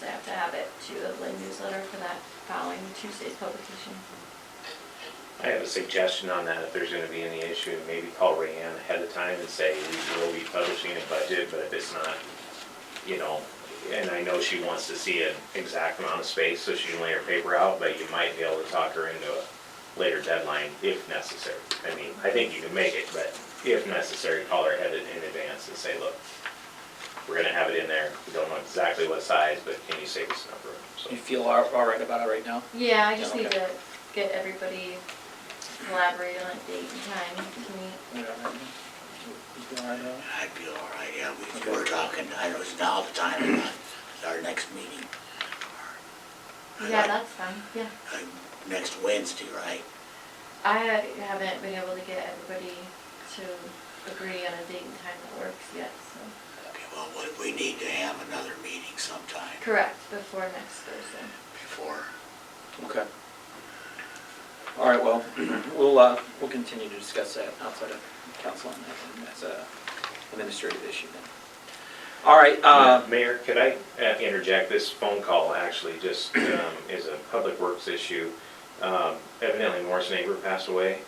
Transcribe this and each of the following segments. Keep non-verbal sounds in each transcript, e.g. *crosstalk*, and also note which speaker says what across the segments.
Speaker 1: to add it to the Lynn newsletter for that following Tuesday's publication.
Speaker 2: I have a suggestion on that, if there's gonna be any issue, maybe call Rayanne ahead of time and say, we will be publishing a budget, but if it's not, you know, and I know she wants to see an exact amount of space, so she can lay her paper out, but you might be able to talk her into a later deadline if necessary. I mean, I think you can make it, but if necessary, call her ahead in advance and say, look, we're gonna have it in there, we don't know exactly what size, but can you save us number? So,
Speaker 3: You feel all all right about it right now?
Speaker 1: Yeah, I just
Speaker 3: Yeah,
Speaker 1: need
Speaker 3: okay.
Speaker 1: to get everybody collaborated on a date and time to meet.
Speaker 3: You all right now? You all right now?
Speaker 4: I'd be all right, yeah, we were talking, I know it's now the time, or not, it's our next meeting. or-
Speaker 1: Yeah, that's fine, yeah.
Speaker 4: Uh, Next Wednesday, right?
Speaker 1: I haven't been able to get everybody to agree on a date and time that works yet, so.
Speaker 4: Okay, well, we- we need to have another meeting sometime
Speaker 1: Correct, before next Thursday.
Speaker 4: before,
Speaker 3: Okay. All right, well, *clears throat* we'll, uh, we'll continue to discuss that outside of council on that, and that's a administrative issue then. All right, uh,
Speaker 2: Mayor, could I uh, interject? This phone call actually just um, is a public works issue. Um, Evidently, Morris neighbor passed away.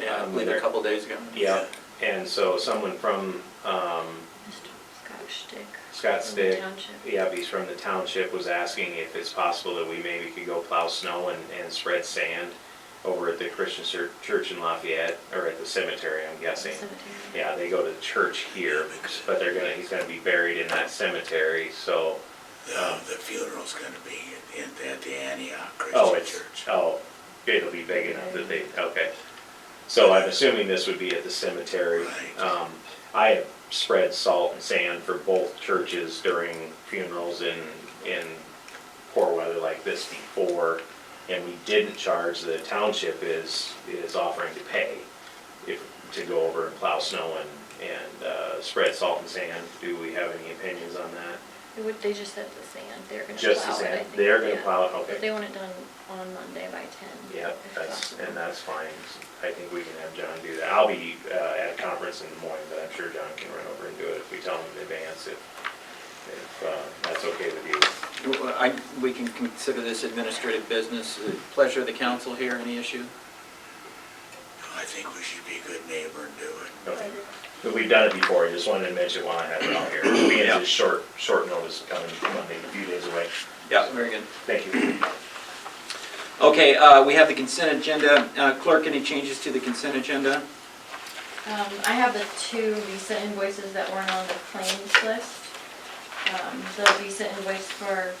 Speaker 3: yeah, I believe uh, a couple days ago.
Speaker 2: Yeah, and so someone from um,
Speaker 1: Mr. Scott Stick.
Speaker 2: Scott Stick,
Speaker 1: Township.
Speaker 2: yeah, he's from the township, was asking if it's possible that we maybe could go plow snow and and spread sand over at the Christian Chur- Church in Lafayette, or at the cemetery, I'm guessing.
Speaker 1: Cemetery.
Speaker 2: Yeah, they go to the church here, but they're gonna, he's gonna be buried in that cemetery, so.
Speaker 4: uh, the funeral's gonna be in, at the Antioch
Speaker 2: Oh,
Speaker 4: Christian
Speaker 2: it's,
Speaker 4: Church.
Speaker 2: oh, it'll be big enough that they, okay. So I'm assuming this would be at the cemetery.
Speaker 4: Right.
Speaker 2: Um, I have spread salt and sand for both churches during funerals in, in poor weather like this before. And we didn't charge, the township is, is offering to pay if, to go over and plow snow and, and, uh, spread salt and sand. Do we have any opinions on that?
Speaker 1: It would- They just said the sand, they're gonna plow it.
Speaker 2: Just the
Speaker 1: I
Speaker 2: sand,
Speaker 1: think,
Speaker 2: they're gonna
Speaker 1: yeah.
Speaker 2: plow it, okay.
Speaker 1: But they want it done on Monday by ten.
Speaker 2: Yeah,
Speaker 1: if
Speaker 2: that's,
Speaker 1: possible.
Speaker 2: and that's fine. I think we can have John do that. I'll be uh, at a conference in Des Moines, but I'm sure John can run over and do it if we tell him in advance if, if uh, that's okay with you.
Speaker 3: I, we can consider this administrative business. uh, Pleasure of the council here, any issue?
Speaker 4: I think we should be a good neighbor and do it.
Speaker 2: Okay. But we've done it before. I just wanted to mention while I have it out here. We
Speaker 3: Yeah.
Speaker 2: had just short, short notice coming Monday, a few days away.
Speaker 3: Yeah, very good.
Speaker 2: Thank you.
Speaker 3: Okay, uh, we have the consent agenda. Uh, Clerk, any changes to the consent agenda?
Speaker 1: Um, I have the two Visa invoices that weren't on the claims list. Um, the Visa invoice for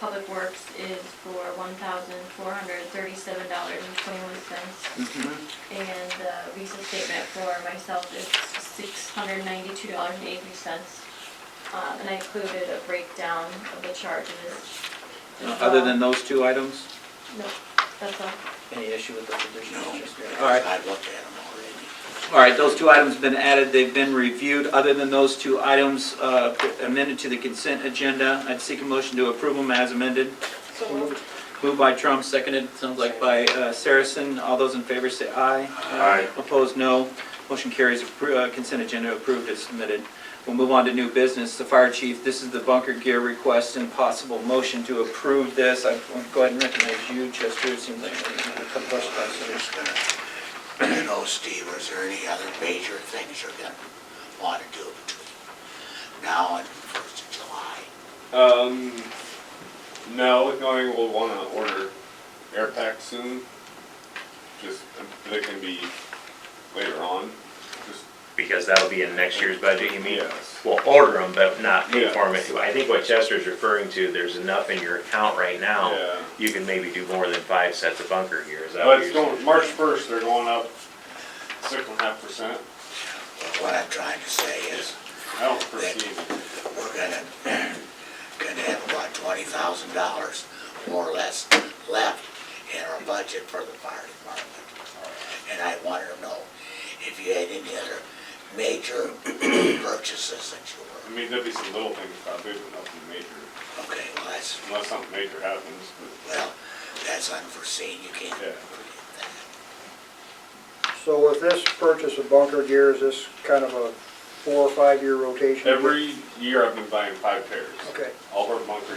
Speaker 1: Public Works is for one thousand four hundred thirty-seven dollars and twenty-one cents.
Speaker 3: Mm-hmm.
Speaker 1: And the Visa statement for myself is six hundred ninety-two dollars and eighty cents. Um, and I included a breakdown of the charges.
Speaker 3: Uh, Other than those two items?
Speaker 1: No, that's all.
Speaker 3: Any issue with those additional?
Speaker 4: No.
Speaker 3: All right,
Speaker 4: I've looked at them already.
Speaker 3: all right, those two items have been added, they've been reviewed. Other than those two items uh, amended to the consent agenda, I'd seek a motion to approve them as amended. Moved by Trump, seconded, sounds like by uh, Saracen. All those in favor say aye.
Speaker 2: Aye.
Speaker 3: Opposed, no. Motion carries, Appro- uh, consent agenda approved as submitted. We'll move on to new business, the fire chief, this is the bunker gear request and possible motion to approve this. I will go ahead and recognize you, Chester, it seems like you have a couple questions.
Speaker 4: I was just gonna, *clears throat* you know, Steve, is there any other major things you're gonna wanna do between now and first of July?
Speaker 5: Um, no, going will want to order air packs soon. Just um, they can be later on. Just
Speaker 2: Because that'll be in next year's budget, you mean?
Speaker 5: Yes.
Speaker 2: We'll order them, but not pay
Speaker 5: Yeah.
Speaker 2: for them. I think what Chester's referring to, there's enough in your account right now.
Speaker 5: Yeah.
Speaker 2: You can maybe do more than five sets of bunker gear, is that what
Speaker 5: but
Speaker 2: you're
Speaker 5: it's
Speaker 2: saying?
Speaker 5: going March first. They're going up six and a half percent.
Speaker 4: Well, What I'm trying to say is,
Speaker 5: I don't foresee.
Speaker 4: we're gonna, *clears throat* gonna have about twenty thousand dollars, more or less, left in our budget for the fire department. And I wanted to know if you had any other major *clears throat* purchases that you
Speaker 5: I
Speaker 4: were,
Speaker 5: mean, there'll be some little things probably, but nothing major,
Speaker 4: okay, well, that's
Speaker 5: unless something major happens.
Speaker 4: Well, that's unforeseen, you can't
Speaker 5: Yeah.
Speaker 4: predict that.
Speaker 6: So with this purchase of bunker gear, is this kind of a four or five-year
Speaker 5: But
Speaker 6: rotation?
Speaker 5: every year I've been buying five pairs.
Speaker 6: Okay.
Speaker 5: All of our bunker